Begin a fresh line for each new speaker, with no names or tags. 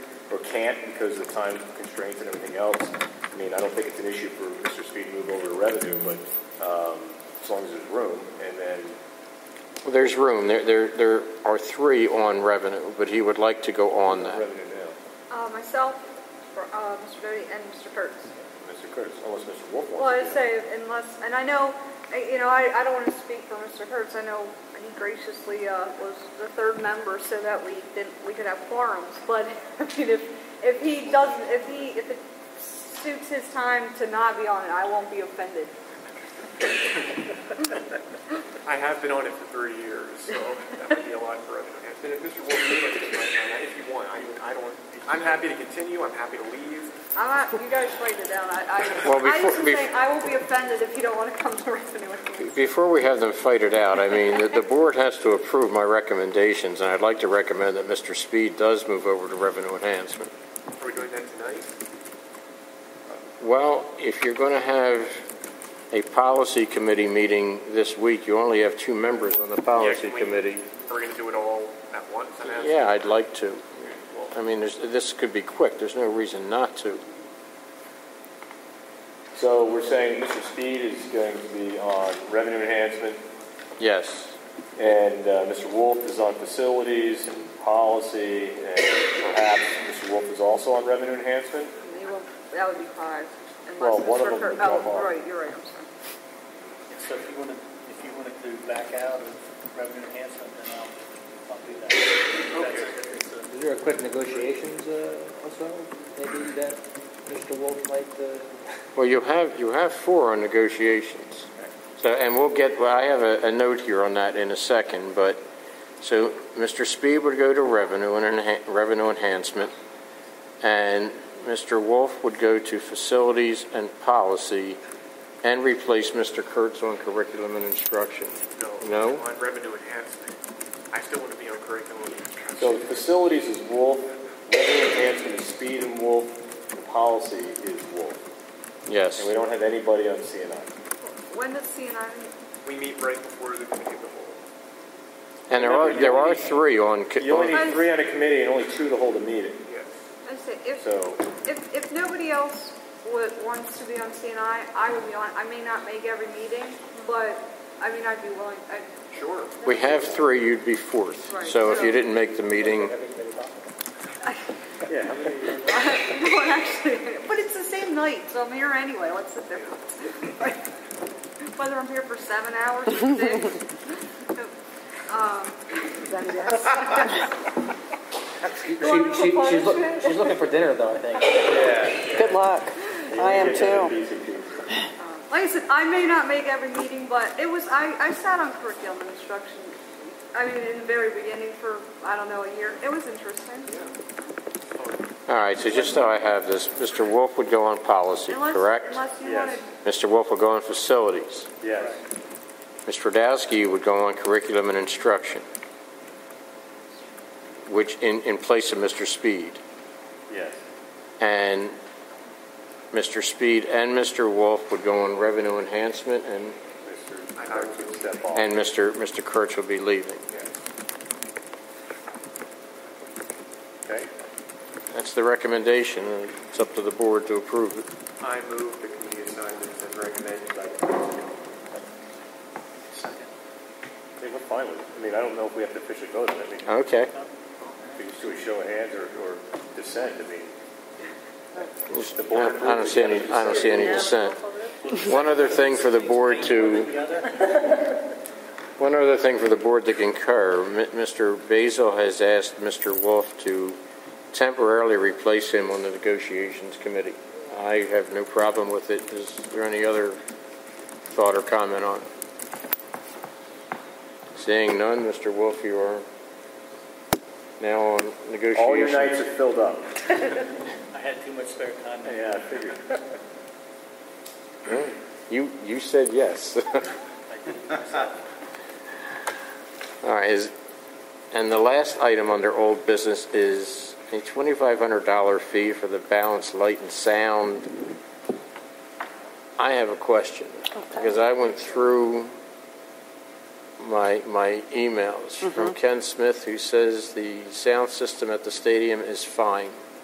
can't because of time constraints and everything else, I mean, I don't think it's an issue for Mr. Speed to move over to revenue, but um, as long as there's room, and then,
Well, There's room. There, there, there are three on revenue, but he would like to go on that.
revenue now,
Uh, myself, for, uh, Mr. Doty and Mr. Kurtz.
Mr. Curtis, unless Mr. Wolf
Well, I
wants to. do it.
say unless, and I know, I- you know, I, I don't want to speak for Mr. Kurtz. I know he graciously uh, was the third member so that we didn't, we could have forums. But I mean, if if he doesn't, if he if it suits his time to not be on it, I won't be offended.
I have been on it for three years, so that would be a lot for other hands. And if Mr. Wolf, you'd like to take my time, if you want, I, I don't, I'm happy to continue, I'm happy to leave.
I'm not, you guys write it down. I, I,
Well,
I just
before-
was saying I will be offended if you don't want to come to revenue with me.
Before we have them fight it out, I mean, the, the board has to approve my recommendations, and I'd like to recommend that Mr. Speed does move over to revenue enhancement.
Are we doing that tonight?
Well, if you're going to have a policy committee meeting this week, you only have two members on the policy
can we-
committee.
Are we gonna do it all at once, I'm asking?
Yeah, I'd like to.
Well,
I mean, there's, this could be quick. There's no reason not to.
So we're saying Mr. Speed is going to be on revenue enhancement,
Yes.
and uh, Mr. Wolf is on facilities and policy, and perhaps Mr. Wolf is also on revenue enhancement?
You will- That would be five. Unless
Well, one of
Mr.
them
Kurtz-
would drop
Oh,
off.
right, you're right, I'm sorry.
So if you want to, if you wanted to back out of revenue enhancement, then I'll, I'll do that. That's- it's a-
Is there a quick negotiations uh, also, maybe that Mr. Wolf might, uh,
Well, you have, you have four on negotiations. So, and we'll get, well, I have a, a note here on that in a second, but, so Mr. Speed would go to revenue and enha- revenue enhancement, and Mr. Wolf would go to facilities and policy, and replace Mr. Kurtz on curriculum and instruction.
No,
No?
on revenue enhancement, I still wanna be on curriculum.
So the facilities is Wolf, revenue enhancement is Speed and Wolf, the policy is Wolf.
Yes.
And we don't have anybody on CNI.
When does CNI meet?
We meet right before the committee of the whole.
And there are, there are three on, co-
You only
on-
need three on a committee and only two to hold a meeting,
Yes.
I say, if,
so.
if, if nobody else would, wants to be on CNI, I would be on, I may not make every meeting, but, I mean, I'd be willing, I,
Sure.
we have three, you'd be fourth.
Right.
So if you didn't make the meeting,
well, actually, but it's the same night, so I'm here anyway, what's the difference? Whether I'm here for seven hours or six. Um, is that a yes?
she,
wanna
she- she- she's,
propose
loo-
it?
she's looking for dinner though, I think.
Good luck. I am too.
Like I said, I may not make every meeting, but it was, I, I sat on curriculum and instruction, I mean, in the very beginning for, I don't know, a year. It was interesting.
all right, so just so I have this, Mr. Wolf would go on policy,
Unless-
correct?
Unless you
Yes.
wanted,
Mr. Wolf would go on facilities.
Yes.
Mr. Radowski would go on curriculum and instruction, which, in, in place of Mr. Speed.
Yes.
And Mr. Speed and Mr. Wolf would go on revenue enhancement, and,
Mr. Kurtz would step off.
and Mr. Mr. Kurtz would be leaving.
Okay.
That's the recommendation, and it's up to the board to approve it.
I move the committee assignments as recommended by the committee.
I mean, we're fine with it. I mean, I don't know if we have to officially vote on it. I mean,
Okay,
we just do a show of hands or, or dissent, I mean.
I I don't see any, I don't see any dissent. One other thing for the board to, one other thing for the board to concur, M- Mr. Basil has asked Mr. Wolf to temporarily replace him on the negotiations committee. I have no problem with it. Is there any other thought or comment on? it? Seeing none, Mr. Wolf, you are now on negotiations.
All your nights are filled up.
I had too much spare time.
Yeah, I figured.
You, you said yes. All right, is, and the last item under old business is a twenty-five hundred dollar fee for the balance, light and sound. I have a question, because I went through my, my emails from Ken Smith, who says the sound system at the stadium is fine.